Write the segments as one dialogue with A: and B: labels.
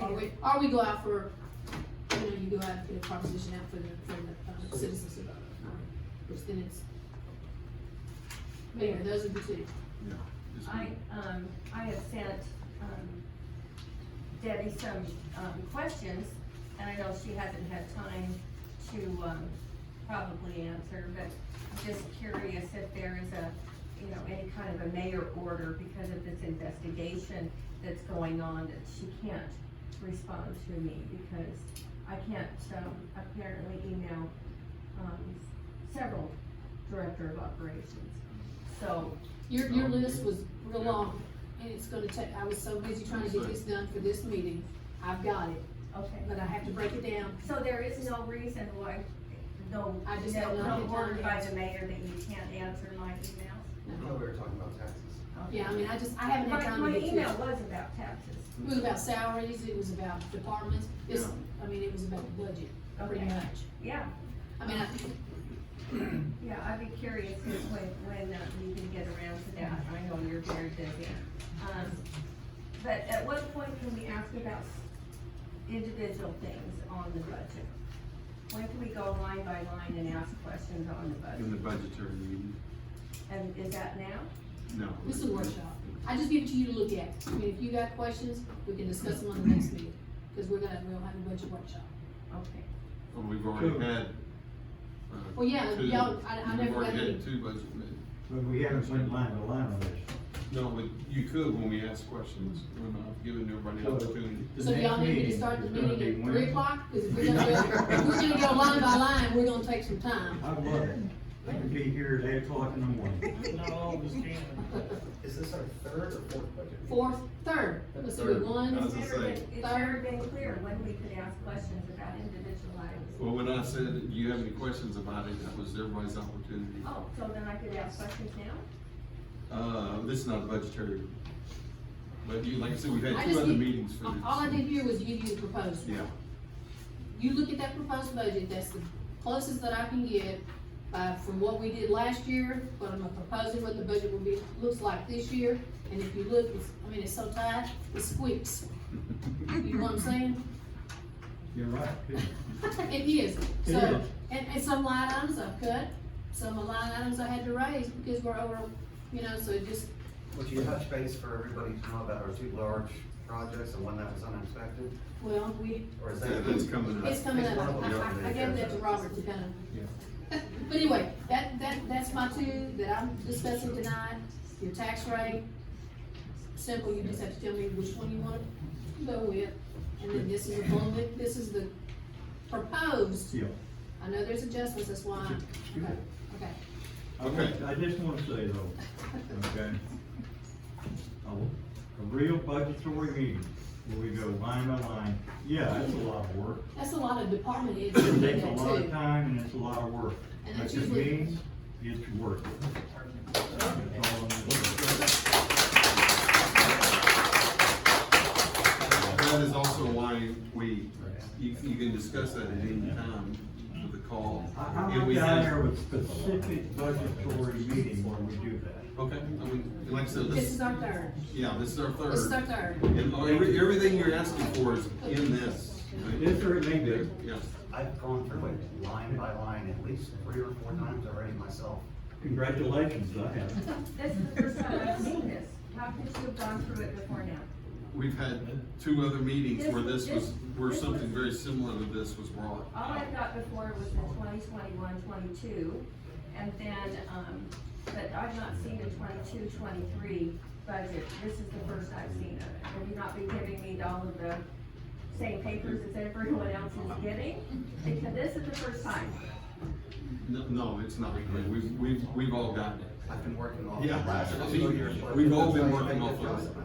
A: or we, or we go out for, you know, you go out and get a proposition out for the, for the uh, citizens to vote. on, Which then it's. Mayor, those are the two.
B: Just-
C: I, um, I have sent, um, Debbie some, um, questions, and I know she hasn't had time to, um, probably answer, but I'm just curious if there is a, you know, any kind of a mayor order because of this investigation that's going on that she can't respond to me because I can't, um, apparently email, um, several director of operations. So,
A: Your, your
B: Um,
A: list was real long, and it's gonna take, I was so busy trying to get this done for this meeting, I've got it,
C: okay.
A: but I have to break it down.
C: So there is no reason why, no,
A: I just
C: no,
A: don't know
C: no
A: the
C: word by
A: timeline.
C: the mayor that you can't answer my emails?
D: I thought we were talking about taxes.
A: Yeah, I mean, I just, I haven't had
C: My,
A: time to
C: my
A: get through.
C: email
A: it.
C: was about taxes.
A: It was about salaries, it was about departments, this, I mean, it was about the budget, pretty
C: Okay.
A: much.
C: Yeah,
A: I mean, I,
C: yeah, I'd be curious if when, when uh, you can get around to that, I know you're very busy. Um, But at what point can we ask about individual things on the budget? When can we go line by line and ask questions on the
B: In the
C: budget?
B: budgetary meeting,
C: And is that now?
B: no.
A: this is a workshop, I just give it to you to look at, I mean, if you got questions, we can discuss them on the next meeting, cause we're gonna, we'll have a budget workshop.
C: Okay.
B: Well, we've already had. uh,
A: Well, yeah,
B: two-
A: y'all- I- I never
B: We've already
A: got any-
B: had two budget meetings.
E: But we haven't went line to line on this.
B: No, but you could when we ask questions, when I've given everybody an opportunity.
E: The
A: So
E: next
A: y'all need to
E: meeting
A: start the
E: is gonna be
A: meeting at three
E: Wednesday.
A: o'clock, cause if we're gonna go, if we're gonna go line by line, we're gonna take some time.
E: I love it. I could be here at eight o'clock in the morning.
F: Not all of us can.
D: Is this our third or fourth budget? meeting?
A: Fourth, third, let's do it,
B: I
A: one,
B: was gonna
C: It's never
B: say,
C: been- It's never been clear when we could ask questions about individual items.
B: well, when I said, do you have any questions about it, that was everybody's opportunity.
C: Oh, so then I could ask questions now?
A: Oh.
B: Uh, this is not a budgetary, but you, like I said, we've
A: I
B: had two
A: just
B: other
A: need-
B: meetings for this.
A: all I did here was give you the proposal.
B: Yeah,
A: You look at that proposed budget, that's the closest that I can get, uh, from what we did last year, what I'm proposing, what the budget will be, looks like this year, and if you look, it's, I mean, it's so tight, it squeaks, you know what I'm saying?
E: You're right.
A: It is,
E: It
A: so,
E: is.
A: and, and some line items I've cut, some line items I had to raise because we're over, you know, so it just,
D: Would you touch base for everybody to know about our two large projects and one that was unexpected?
A: well, we,
D: Or is
B: Yeah,
D: that?
B: that's coming up.
A: it's coming up,
D: one of
A: I,
D: them
A: I, I gave that to Robert to kind
B: Yeah.
A: of. But anyway, that, that, that's my two that I'm discussing tonight, your tax rate, simple, you just have to tell me which one you wanna go with, and then this is a bullet, this is the proposed,
E: Yeah.
A: I know there's adjustments, that's why,
E: You're
A: okay,
E: good.
A: okay.
E: I want-
B: Okay.
E: I just wanna say though, okay? A, a real budgetary meeting where we go line by line, yeah, that's a lot of work.
A: That's a lot of department heads
E: It
A: that do
E: takes a
A: that
E: lot of
A: too.
E: time and it's a lot of work.
A: And
E: But
A: that's
E: it
A: usually-
E: means it's worth it. That's all I'm gonna say.
B: That is also why we, you, you can discuss that at any time with the call.
E: I, I
B: And we
E: went down
B: have-
E: there with specific budgetary meeting where we do that.
B: Okay, I mean, like I said,
A: This
B: this,
A: is our third,
B: yeah, this is our
A: this is our
B: third.
A: third.
B: And all- every- everything you're asking for is in this.
E: Is there a link there?
B: Yeah,
D: I've gone through it line by line at least three or four times already myself.
E: Congratulations, I have.
C: This is the first time I've seen this. How could you have gone through it before now?
B: we've had two other meetings where this was, where something very similar to this was brought.
C: All I got before was the 2021-22, and then, um, but I've not seen the 22-23 budget. This is the first I've seen of it. Will you not be giving me all of the same papers as everyone else is getting? Because this is the first time.
B: No, no, it's not, we've, we've, we've all gotten it.
D: I've been working off the
B: Yeah.
D: last
B: See,
D: two years.
B: we've all been working off of it.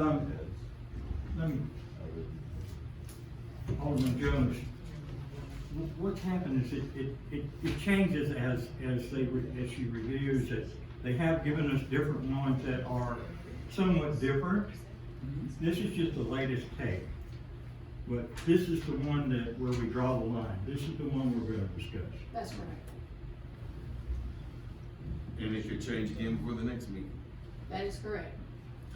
E: Um, let me- Alderman Jones, wh- what's happened is it, it, it, it changes as, as they, re- as she reviews it. They have given us different ones that are somewhat different. This is just the latest take. But this is the one that, where we draw the line. This is the one we're gonna discuss.
A: That's right.
B: And it could change again before the next meeting.
A: That is correct.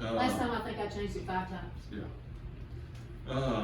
B: Uh,
A: Last time I think I changed it five times.
B: Yeah. Uh,